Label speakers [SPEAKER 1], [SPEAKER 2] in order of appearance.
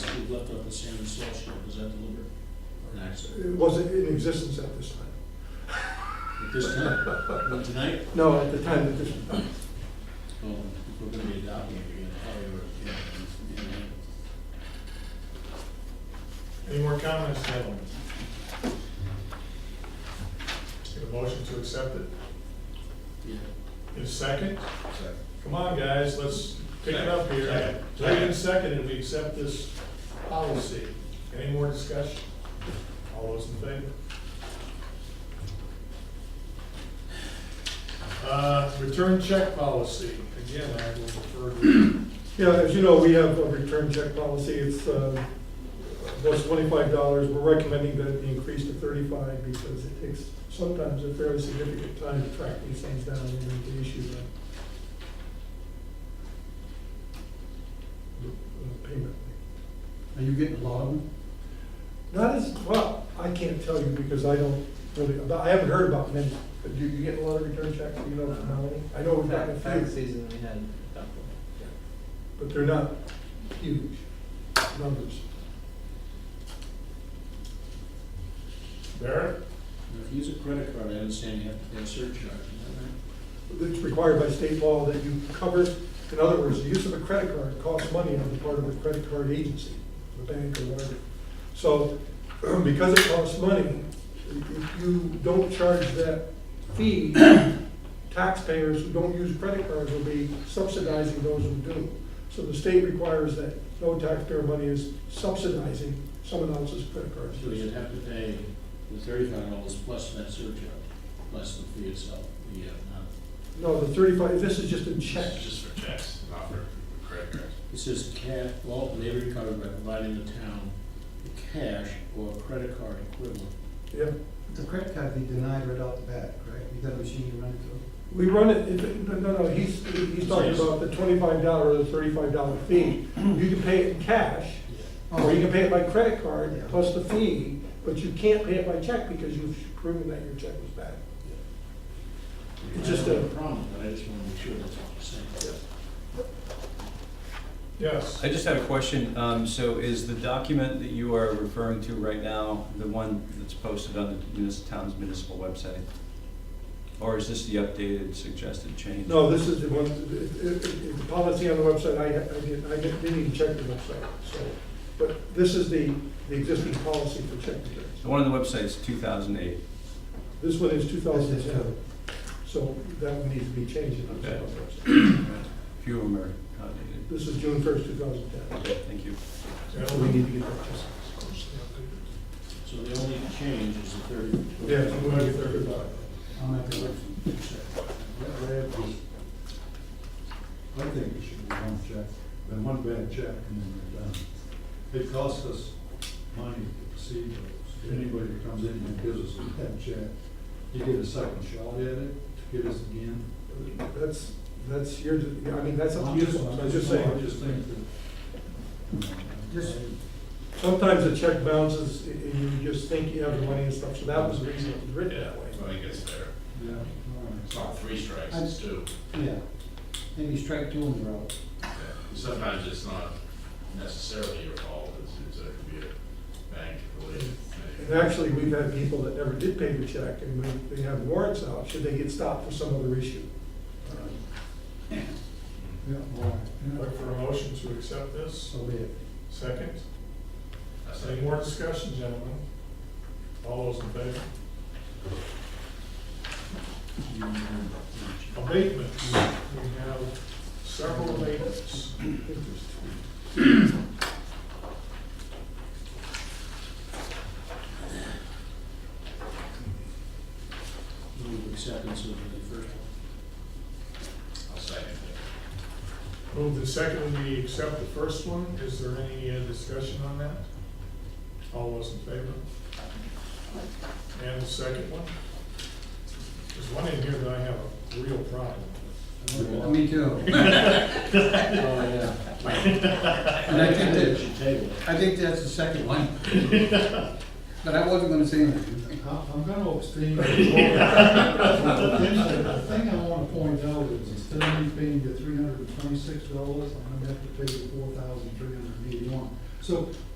[SPEAKER 1] left out the sand and salt shed, was that deliberate? Or an accident?
[SPEAKER 2] It wasn't in existence at this time.
[SPEAKER 1] At this time, not tonight?
[SPEAKER 2] No, at the time that this,
[SPEAKER 1] Well, if we're gonna be adopting it, we're gonna probably, yeah, it's- yeah.
[SPEAKER 3] Any more comments, gentlemen? Get a motion to accept it.
[SPEAKER 1] Yeah.
[SPEAKER 3] In a second? Come on, guys, let's pick it up here.
[SPEAKER 4] Second.
[SPEAKER 3] Second and second, and we accept this policy. Any more discussion? All those in favor? Uh, return check policy. Again, I will refer to,
[SPEAKER 2] yeah, as you know, we have a return check policy. It's, uh, was twenty-five dollars. We're recommending that it be increased to thirty-five because it takes sometimes a fairly significant time to track these things down and then to issue them. The uh, payment.
[SPEAKER 5] Are you getting a lot of them?
[SPEAKER 2] Not as, well, I can't tell you because I don't really, but I haven't heard about many. But do you get a lot of return checks, do you know how many? I know we've gotten
[SPEAKER 6] Back, back
[SPEAKER 2] a few,
[SPEAKER 6] season, we had a couple.
[SPEAKER 2] but they're not huge numbers.
[SPEAKER 3] Barrett?
[SPEAKER 1] Now, If you use a credit card, I understand you have to pay a surcharge, is that right?
[SPEAKER 2] It's required by state law that you cover, in other words, the use of a credit card costs money on the part of the credit card agency, the bank or whatever. So because it costs money, if you don't charge that fee, taxpayers who don't use credit cards will be subsidizing those who do. So the state requires that no taxpayer money is subsidizing someone else's credit card.
[SPEAKER 1] So you'd have to pay the thirty-five dollars plus that surcharge, plus the fee itself, the, uh, not,
[SPEAKER 2] No, the thirty-five, this is just a check.
[SPEAKER 4] It's just for checks, not for credit cards.
[SPEAKER 1] It says cash, well, they recover by providing the town the cash or credit card equivalent.
[SPEAKER 2] Yeah.
[SPEAKER 5] The credit card be denied right off the bat, correct? You got a machine you run it through?
[SPEAKER 2] We run it, it- no, no, no, he's, he's talking about the twenty-five dollar or the thirty-five dollar fee. You can pay it in cash, or Oh, you can pay it by credit card
[SPEAKER 5] Yeah.
[SPEAKER 2] plus the fee, but you can't pay it by check because you've proven that your check was bad. It's just
[SPEAKER 1] I don't
[SPEAKER 2] a-
[SPEAKER 1] have problem, but I just wanna make sure that's what you're saying.
[SPEAKER 3] Yes.
[SPEAKER 7] I just had a question. Um, So is the document that you are referring to right now, the one that's posted on the munis- town's municipal website? Or is this the updated suggested change?
[SPEAKER 2] No, this is the one, it- it- it- the policy on the website, I, I didn't, I didn't even check the website, so. But this is the, the existing policy for check returns.
[SPEAKER 7] The one on the website's 2008.
[SPEAKER 2] This one is two thousand and ten, so that one needs to be changed in the
[SPEAKER 7] Okay.
[SPEAKER 2] website.
[SPEAKER 7] Few of them are outdated.
[SPEAKER 2] This is June first, two thousand and ten.
[SPEAKER 7] Thank you.
[SPEAKER 2] So we need to get that just.
[SPEAKER 1] So the only change is the thirty.
[SPEAKER 2] Yeah, so we're gonna get thirty-five.
[SPEAKER 5] I'll make a motion.
[SPEAKER 8] I think it should be one check, then one bad check, and then we're done. It costs us money to proceed those. Anybody that comes in and gives us a bad check, you get a second shot at it, to get us again.
[SPEAKER 2] That's, that's your, I mean, that's up
[SPEAKER 8] I'm
[SPEAKER 2] to you,
[SPEAKER 8] just,
[SPEAKER 2] I'm
[SPEAKER 8] I'm
[SPEAKER 2] just
[SPEAKER 8] I
[SPEAKER 2] saying.
[SPEAKER 8] just think that.
[SPEAKER 5] Just-
[SPEAKER 2] Sometimes a check bounces and you just think you have the money and stuff, so that was the reason it was written that way.
[SPEAKER 4] I think it's there.
[SPEAKER 8] Yeah, all right.
[SPEAKER 4] It's not three strikes, it's two.
[SPEAKER 5] Yeah. Maybe strike two in a row.
[SPEAKER 4] Sometimes it's not necessarily your fault, it's, it's, it could be a bank related
[SPEAKER 2] And
[SPEAKER 4] thing.
[SPEAKER 2] actually, we've had people that never did pay the check and we, they have warrants out, should they get stopped for some other issue.
[SPEAKER 5] Yeah, all
[SPEAKER 3] Look
[SPEAKER 5] right.
[SPEAKER 3] for a motion to accept this.
[SPEAKER 5] So be it.
[SPEAKER 3] Second.
[SPEAKER 4] That's
[SPEAKER 3] Any more discussion, gentlemen? All those in favor? Abatements. We have several abatements.
[SPEAKER 1] Move acceptance of the first one.
[SPEAKER 4] I'll second it.
[SPEAKER 3] Move the second, we accept the first one. Is there any uh, discussion on that? All those in favor? And the second one? There's one in here that I have a real problem with.
[SPEAKER 5] Me too.
[SPEAKER 1] Oh, yeah.
[SPEAKER 5] And I think
[SPEAKER 1] we
[SPEAKER 5] that,
[SPEAKER 1] should table it.
[SPEAKER 5] I think that's the second one. But I wasn't gonna say anything.
[SPEAKER 8] I- I'm gonna abstain. from voting. The thing I wanna point out is instead of me paying the three hundred and twenty-six dollars, I'm gonna have to pay the four thousand three hundred and eighty-one. So